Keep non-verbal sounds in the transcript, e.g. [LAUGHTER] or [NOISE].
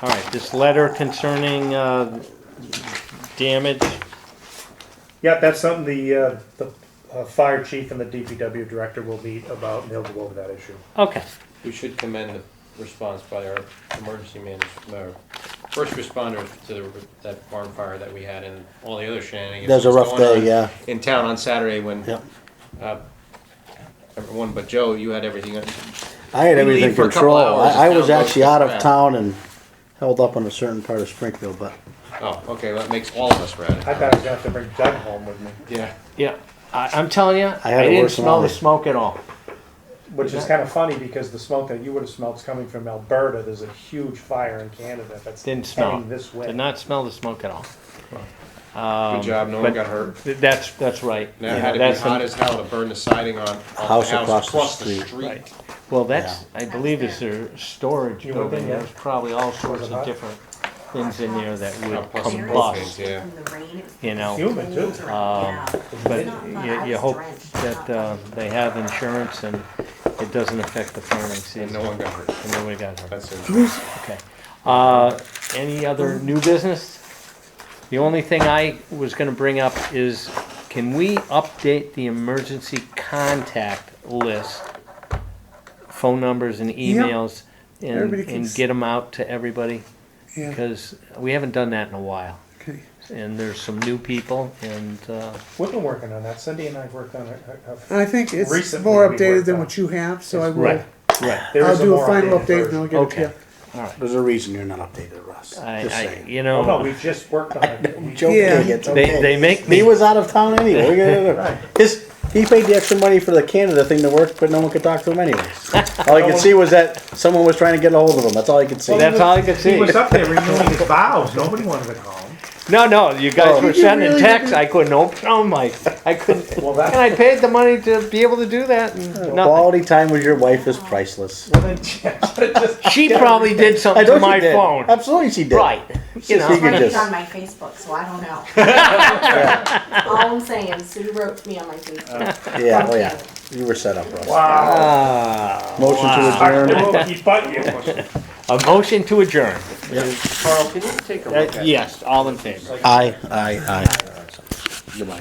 All right, this letter concerning uh, damage, Yeah, that's something the, uh, the uh, fire chief and the DPW director will meet about, and they'll go over that issue. okay. We should commend the response by our emergency management, first responder to the, that barn fire that we had and all the other shenanigans. That was a that's rough going day, on yeah. In town on Saturday when, Yep. uh, everyone but Joe, you had everything, on- I had We leave everything for a couple control. hours, I, I the was town goes actually out of back. town and held up on a certain part of Springfield, but oh, okay, well, that makes all of us I rad. thought I was gonna have to bring Doug home with me, Yeah, Yeah, I, I'm telling you, I, had it didn't worse than smell all the these. smoke at all. which is kinda funny, because the smoke that you would've smelled is coming from Alberta, there's a huge fire in Canada that's Didn't smell. heading this way. Did not smell the smoke at all. good job, no one Um, but- got hurt. Th- That's that's right. Now, You it know, had to be that's the- hot as hell to burn the siding on, on House the house across the across the street. street. Right. Well, that's I believe is their storage You went building. in, yeah? There's probably all sorts of hot? different things in there that would Oh, plus the combust. propane. yeah. From the rain, it's You know, Oh Human too. cold right now. Um, But Not fun. I you, you was hope drenched. that uh, they have insurance and it doesn't affect the farming And season. no one got hurt, And then we got her. that's [LAUGHS] it. Okay. Uh, any other new business? The only thing I was gonna bring up is, can we update the emergency contact list? Phone numbers and emails and, Everybody and keeps- get them out to everybody? Yeah. Because we haven't done that in a while. Okay. And there's some new people and, uh, We've been working on that, Cindy and I worked on it, uh, uh, And I think it's Recently more we updated worked than on- what you have, so I will. right, right. there I'll is a do a more final updated update and I'll version. get it to Okay, you. all right. there's a reason you're not updated, Russ. I, Just I, saying. [LAUGHS] you Oh, no, know, we just worked on [LAUGHS] it. We- Joking, Yeah. it's they, okay. they make me. He was out of [LAUGHS] town anyway. Look at Right. it. His, he paid the extra money for the Canada thing to work, but no one could talk to [LAUGHS] him anyways. All I could see was that someone was trying to get a hold of him. That's all I could see. That's all I could see. He was up there [LAUGHS] renewing his vows, nobody wanted to go home. No, no, you guys Oh. were Did you sending really texts. I couldn't open them. I, I couldn't. Well, that- [LAUGHS] and I paid the money to be able to do that. And Oh, nothing. Quality time with your wife is priceless. Well, then, [LAUGHS] just- She probably did something to know she my did. phone. Absolutely, she did. Right. You Just know, thinking- But Yes. it's on my Facebook, so I don't [LAUGHS] know. All I'm saying, Sue wrote me on my Facebook. Yeah, oh yeah. You were set up, Russ. Wow. Ah, Motion Dr. to adjourn. Wilkie, butt [LAUGHS] you. a motion to adjourn. Carl, can you take a Uh, look at? yes, all in favor. Aye, aye, aye. Goodbye.